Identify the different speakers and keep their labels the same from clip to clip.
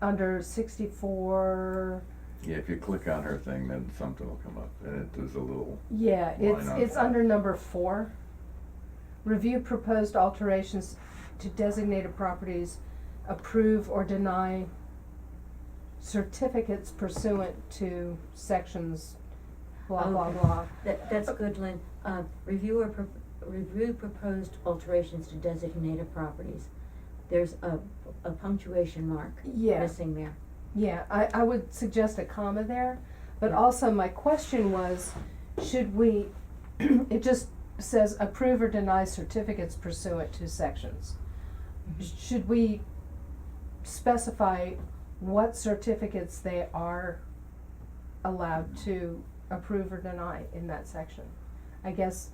Speaker 1: under sixty-four,
Speaker 2: Yeah, if you click on her thing, then something will come up, and it does a little,
Speaker 1: yeah, it's,
Speaker 2: Line
Speaker 1: it's
Speaker 2: up.
Speaker 1: under number four. Review proposed alterations to designated properties, approve or deny certificates pursuant to sections, blah, blah,
Speaker 3: Oh, Okay.
Speaker 1: blah.
Speaker 3: That, that's good, Lynn. Uh, review or, pro- review proposed alterations to designated properties. There's a, a punctuation mark
Speaker 1: Yeah.
Speaker 3: missing there.
Speaker 1: Yeah, I, I would suggest a comma there, but
Speaker 3: Yeah.
Speaker 1: also my question was, should we, it just says approve or deny certificates pursuant to sections. Mm-hmm. Should we specify what certificates they are allowed to approve or deny in that section? I guess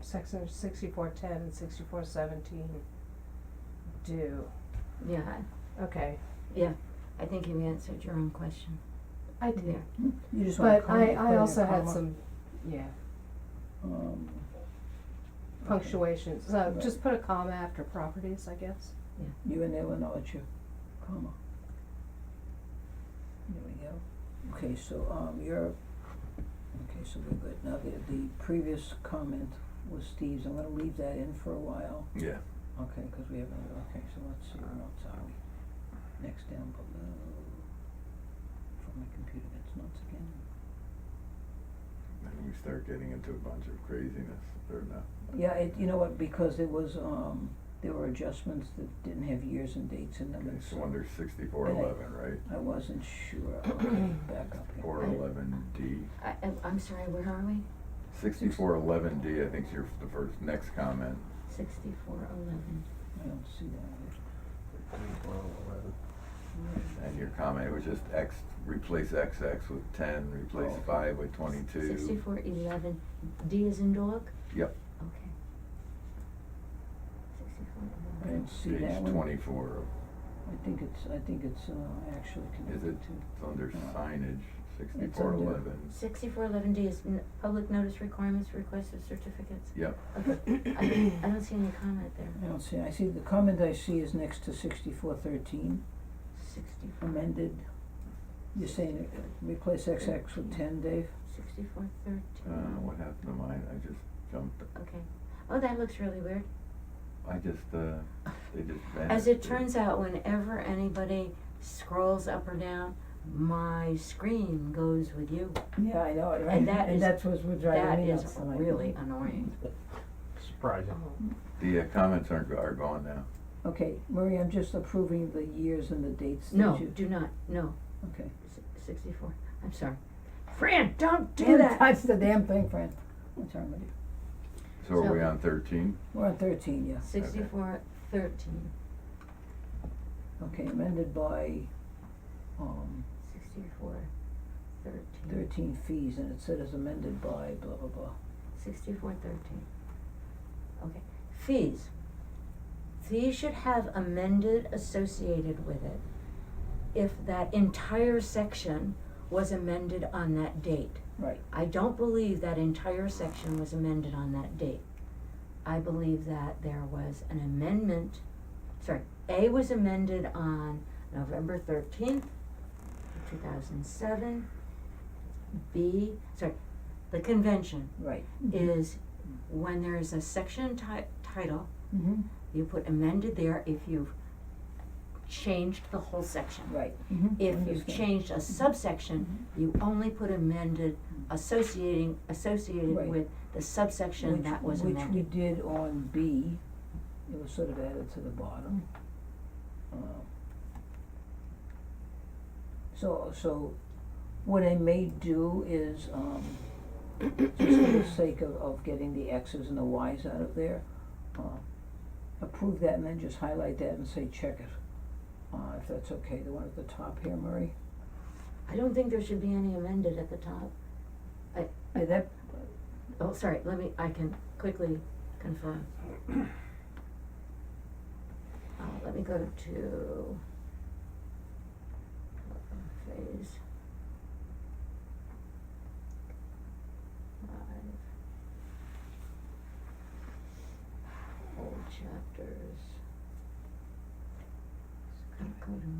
Speaker 1: section sixty-four ten and sixty-four seventeen do,
Speaker 3: Yeah, I-
Speaker 1: okay,
Speaker 3: yeah. I think you answered your own question
Speaker 1: I did.
Speaker 3: there.
Speaker 4: You just wanna
Speaker 1: But
Speaker 4: call it,
Speaker 1: I,
Speaker 4: put it
Speaker 1: I
Speaker 4: in a
Speaker 1: also had
Speaker 4: comma.
Speaker 1: some, yeah,
Speaker 4: Um,
Speaker 1: punctuation, so
Speaker 4: Right.
Speaker 1: just put a comma after properties, I guess.
Speaker 4: You and Illinois, it's your comma. There we go. Okay, so, um, you're, okay, so we're good. Now, the, the previous comment was Steve's. I'm gonna leave that in for a while.
Speaker 2: yeah.
Speaker 4: Okay, cause we haven't, okay, so let's see, where else are we? Next down below. From my computer, that's nuts again.
Speaker 2: Then we start getting into a bunch of craziness, or not.
Speaker 4: Yeah, it, you know what, because it was, um, there were adjustments that didn't have years and dates in them,
Speaker 2: Okay,
Speaker 4: and so.
Speaker 2: so under sixty-four eleven, right?
Speaker 4: I wasn't sure, okay, back up here.
Speaker 2: Or eleven D.
Speaker 3: I, I'm- I'm sorry, where are we?
Speaker 2: Sixty-four eleven D, I think is your, the first, next comment.
Speaker 3: Sixty-four eleven.
Speaker 4: I don't see that.
Speaker 2: And your comment was just X, replace XX with ten, replace
Speaker 4: Oh.
Speaker 2: five with twenty-two.
Speaker 3: Sixty-four eleven. D is in dog?
Speaker 2: Yep,
Speaker 3: Okay. Sixty-four
Speaker 4: I
Speaker 3: eleven.
Speaker 4: didn't see that
Speaker 2: page
Speaker 4: one.
Speaker 2: twenty-four,
Speaker 4: I think it's, I think it's, uh, actually
Speaker 2: is it,
Speaker 4: connected to.
Speaker 2: it's
Speaker 4: Uh,
Speaker 2: under
Speaker 4: No.
Speaker 2: signage, sixty-four
Speaker 4: under-
Speaker 2: eleven,
Speaker 3: Sixty-four eleven D is n- public notice requirements, request of certificates.
Speaker 2: yep.
Speaker 3: Okay, I don't, I don't see any comment there.
Speaker 4: I don't see, I see, the comment I see is next to sixty-four thirteen,
Speaker 3: Sixty-four.
Speaker 4: amended. You're saying it- it replace XX with ten, Dave?
Speaker 3: Sixty-four
Speaker 2: Uh,
Speaker 3: thirteen.
Speaker 2: what happened to mine? I just jumped,
Speaker 3: Okay. Oh, that looks really weird.
Speaker 2: I just, uh, they just vanished.
Speaker 3: As it turns out, whenever anybody scrolls up or down, my screen goes with you.
Speaker 4: Yeah, I know, it, right?
Speaker 3: And that is-
Speaker 4: And that's what's what's driving me
Speaker 3: That
Speaker 4: nuts.
Speaker 3: is
Speaker 4: I'm like,
Speaker 3: really annoying.
Speaker 5: Surprising.
Speaker 1: Uh-huh.
Speaker 2: The uh, comments aren't, go- are gone now.
Speaker 4: Okay, Marie, I'm just approving the years and the dates that you.
Speaker 3: No, do not, no,
Speaker 4: Okay.
Speaker 3: S- sixty-four, I'm sorry. Fran, don't do
Speaker 4: Don't
Speaker 3: that!
Speaker 4: touch the damn thing, Fran. What's wrong with you?
Speaker 2: So are we
Speaker 3: So-
Speaker 2: on thirteen?
Speaker 4: We're on thirteen, yeah.
Speaker 3: Sixty-four thirteen,
Speaker 4: Okay, amended by, um,
Speaker 3: sixty-four thirteen,
Speaker 4: thirteen fees, and it said as amended by blah, blah, blah.
Speaker 3: sixty-four thirteen. Okay, fees. Fees should have amended associated with it if that entire section was amended on that date.
Speaker 4: Right,
Speaker 3: I don't believe that entire section was amended on that date. I believe that there was an amendment, sorry, A was amended on November thirteenth, two thousand seven. B, sorry, the convention
Speaker 4: right.
Speaker 3: is when there is a section ti- title,
Speaker 4: Mm-hmm,
Speaker 3: you put amended there if you've changed the whole section.
Speaker 4: right.
Speaker 3: If you've changed a subsection, you only put amended associating,
Speaker 4: Right.
Speaker 3: associated with the subsection that was
Speaker 4: Which,
Speaker 3: amended.
Speaker 4: we did on B, it was sort of added to the bottom. Um, So, so what I may do is, um, just for the sake of, of getting the X's and the Y's out of there, uh, approve that and then just highlight that and say check it. Uh, if that's okay, the one at the top here, Murray?
Speaker 3: I don't think there should be any amended at the top.
Speaker 4: Yeah, that,
Speaker 3: Oh, sorry, let me, I can quickly confirm. Uh, let me go to phase. Five. Whole chapters. Just gonna go to